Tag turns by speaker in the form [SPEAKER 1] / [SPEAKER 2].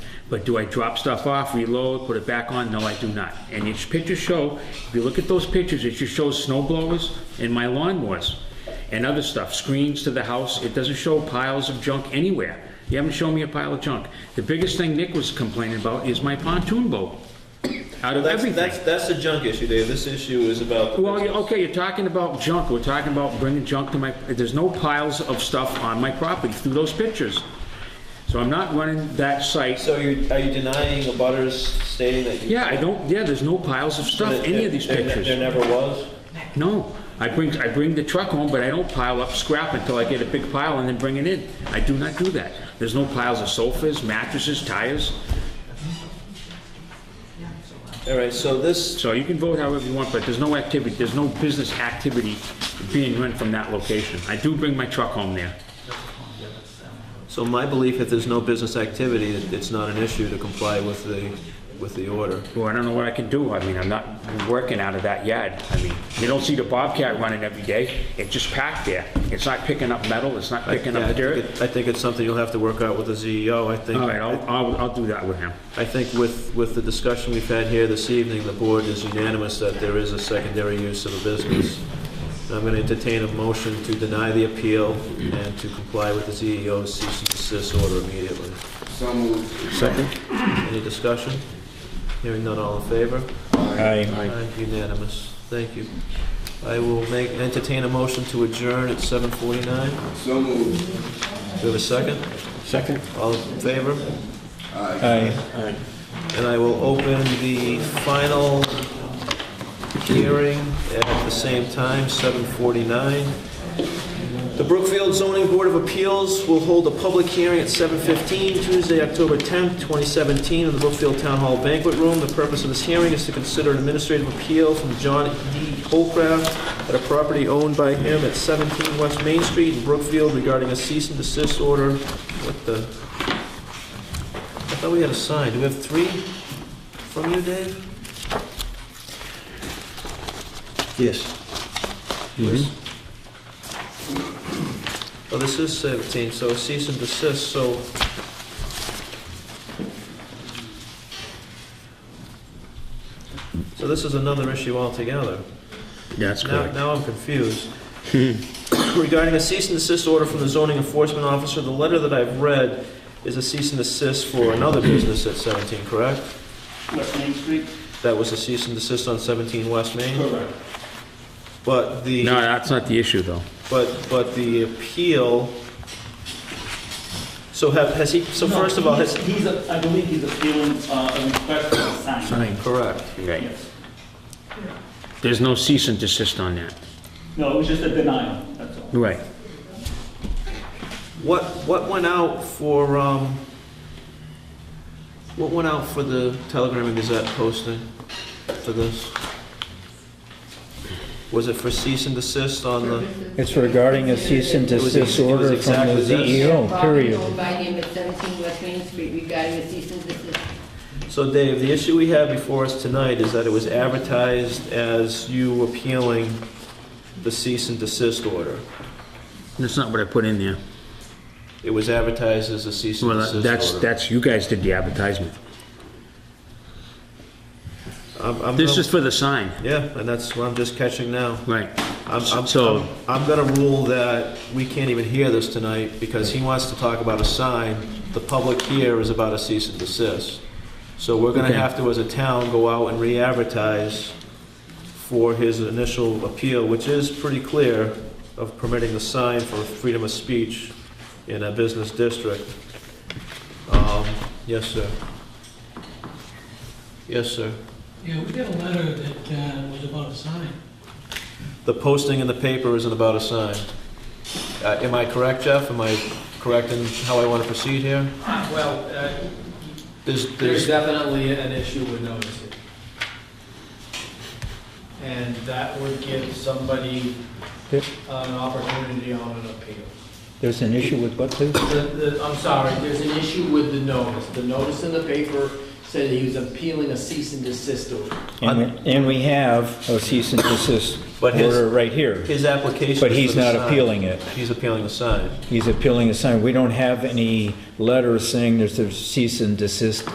[SPEAKER 1] But do I drop stuff off, reload, put it back on? No, I do not. And these pictures show, if you look at those pictures, it just shows snow blowers and my lawnmowers and other stuff, screens to the house. It doesn't show piles of junk anywhere. You haven't shown me a pile of junk. The biggest thing Nick was complaining about is my pontoon boat. Out of
[SPEAKER 2] That's,
[SPEAKER 1] everything.
[SPEAKER 2] that's, that's a junk issue, Dave. This issue is about. the
[SPEAKER 1] Well, you-
[SPEAKER 2] business.
[SPEAKER 1] okay, you're talking about junk, we're talking about bringing junk to my, there's no piles of stuff on my property through those pictures. So I'm not running that site.
[SPEAKER 2] So you, are you denying the butters stating that you?
[SPEAKER 1] Yeah, I don't, yeah, there's no piles of stuff,
[SPEAKER 2] that-
[SPEAKER 1] any
[SPEAKER 2] that
[SPEAKER 1] of these
[SPEAKER 2] there ne- There
[SPEAKER 1] pictures.
[SPEAKER 2] never was?
[SPEAKER 1] No, I bring, I bring the truck home, but I don't pile up scrap until I get a big pile and then bring it in. I do not do that. There's no piles of sofas, mattresses, tires.
[SPEAKER 2] All right, so this,
[SPEAKER 1] So you can vote however you want, but there's no activity, there's no business activity being run from that location. I do bring my truck home there.
[SPEAKER 2] so my belief, if there's no business activity, it- it's not an issue to comply with the, with the order.
[SPEAKER 1] Well, I don't know what I can do. I mean, I'm not working out of that yard. I mean, you don't see the Bobcat running every day. It's just packed there. It's not picking up metal, it's not picking
[SPEAKER 2] Yeah, I
[SPEAKER 1] up
[SPEAKER 2] think
[SPEAKER 1] dirt.
[SPEAKER 2] it- I think it's something you'll have to work out with the CEO. I think.
[SPEAKER 1] All right, I'll, I'll, I'll do that with him.
[SPEAKER 2] I think with, with the discussion we've had here this evening, the board is unanimous that there is a secondary use of a business. I'm going to entertain a motion to deny the appeal and to comply with the CEO's cease and desist order immediately.
[SPEAKER 3] So moved.
[SPEAKER 2] Second. Any discussion? Hearing none, all in favor?
[SPEAKER 4] Aye.
[SPEAKER 2] Aye, Unanimous. Thank you. I will make, entertain a motion to adjourn at 7:49. Do
[SPEAKER 3] So moved.
[SPEAKER 2] we have a second?
[SPEAKER 4] Second?
[SPEAKER 2] All in favor?
[SPEAKER 4] Aye.
[SPEAKER 2] And I will open the final hearing at the same time, 7:49. The Brookfield Zoning Board of Appeals will hold a public hearing at 7:15 Tuesday, October 10th, 2017, in the Brookfield Town Hall Banquet Room. The purpose of this hearing is to consider an administrative appeal from John D. Holcraft at a property owned by him at 17 West Main Street in Brookfield regarding a cease and desist order. What the... I thought we had a sign. Do we have three from you, Dave?
[SPEAKER 4] Yes.
[SPEAKER 2] Oh, this is 17, so cease and desist, so... So this is another issue altogether.
[SPEAKER 1] That's
[SPEAKER 2] Now, now I'm confused. Regarding a cease and desist order from the zoning enforcement officer, the letter that I've read is a cease and desist for another business at 17, correct?
[SPEAKER 3] West Main Street?
[SPEAKER 2] That was a cease and desist on 17 West Main?
[SPEAKER 3] Correct.
[SPEAKER 2] But the...
[SPEAKER 1] No, that's not the issue, though.
[SPEAKER 2] But, but the appeal, so have, has he, so
[SPEAKER 5] No,
[SPEAKER 2] first of all,
[SPEAKER 5] he's-
[SPEAKER 2] has,
[SPEAKER 5] He's, a- I believe he's appealing uh, a request for a sign.
[SPEAKER 2] correct.
[SPEAKER 1] Right.
[SPEAKER 5] Yes.
[SPEAKER 1] There's no cease and desist on that.
[SPEAKER 5] No, it was just a denial, that's all.
[SPEAKER 1] Right.
[SPEAKER 2] What, what went out for, um, what went out for the Telegram and Gazette posting for this? Was it for cease and desist on the,
[SPEAKER 4] It's regarding a cease and
[SPEAKER 2] was-
[SPEAKER 4] desist
[SPEAKER 2] it was
[SPEAKER 4] order from
[SPEAKER 2] exactly
[SPEAKER 4] the
[SPEAKER 2] this.
[SPEAKER 4] CEO,
[SPEAKER 6] Property
[SPEAKER 4] period.
[SPEAKER 6] owned by him at 17 West Main Street regarding a cease and desist.
[SPEAKER 2] so Dave, the issue we have before us tonight is that it was advertised as you appealing the cease and desist order.
[SPEAKER 1] That's not what I put in there.
[SPEAKER 2] It was advertised as a cease and desist
[SPEAKER 1] Well,
[SPEAKER 2] order.
[SPEAKER 1] that's, that's, you guys did the advertisement.
[SPEAKER 2] I'm- I'm
[SPEAKER 1] This
[SPEAKER 2] gonna-
[SPEAKER 1] is for the sign.
[SPEAKER 2] Yeah, and that's what I'm just catching now.
[SPEAKER 1] Right.
[SPEAKER 2] I'm, I'm,
[SPEAKER 1] So-
[SPEAKER 2] I'm, I'm gonna rule that we can't even hear this tonight because he wants to talk about a sign. The public here is about a cease and desist. So we're gonna
[SPEAKER 1] Okay.
[SPEAKER 2] have to, as a town, go out and re-advertise for his initial appeal, which is pretty clear of permitting the sign for freedom of speech in a business district. Um, yes, sir. Yes, sir.
[SPEAKER 7] Yeah, we got a letter that uh, was about a sign.
[SPEAKER 2] The posting in the paper isn't about a sign. Uh, Am I correct, Jeff? Am I correct in how I want to proceed here?
[SPEAKER 8] Well, uh,
[SPEAKER 2] There's,
[SPEAKER 8] there's
[SPEAKER 2] there's,
[SPEAKER 8] definitely an issue with noticing. And that would give somebody uh,
[SPEAKER 4] Yep.
[SPEAKER 8] an opportunity on an appeal.
[SPEAKER 4] There's an issue with what, please?
[SPEAKER 8] The- the- I'm sorry, there's an issue with the notice. The notice in the paper said he was appealing a cease and desist order.
[SPEAKER 4] And we- and we have a cease and desist
[SPEAKER 2] But his-
[SPEAKER 4] order right here,
[SPEAKER 2] his application is
[SPEAKER 4] but
[SPEAKER 2] for
[SPEAKER 4] he's
[SPEAKER 2] the
[SPEAKER 4] not
[SPEAKER 2] sign.
[SPEAKER 4] appealing it.
[SPEAKER 2] He's appealing the sign.
[SPEAKER 4] He's appealing the sign. We don't have any letters saying there's a cease and desist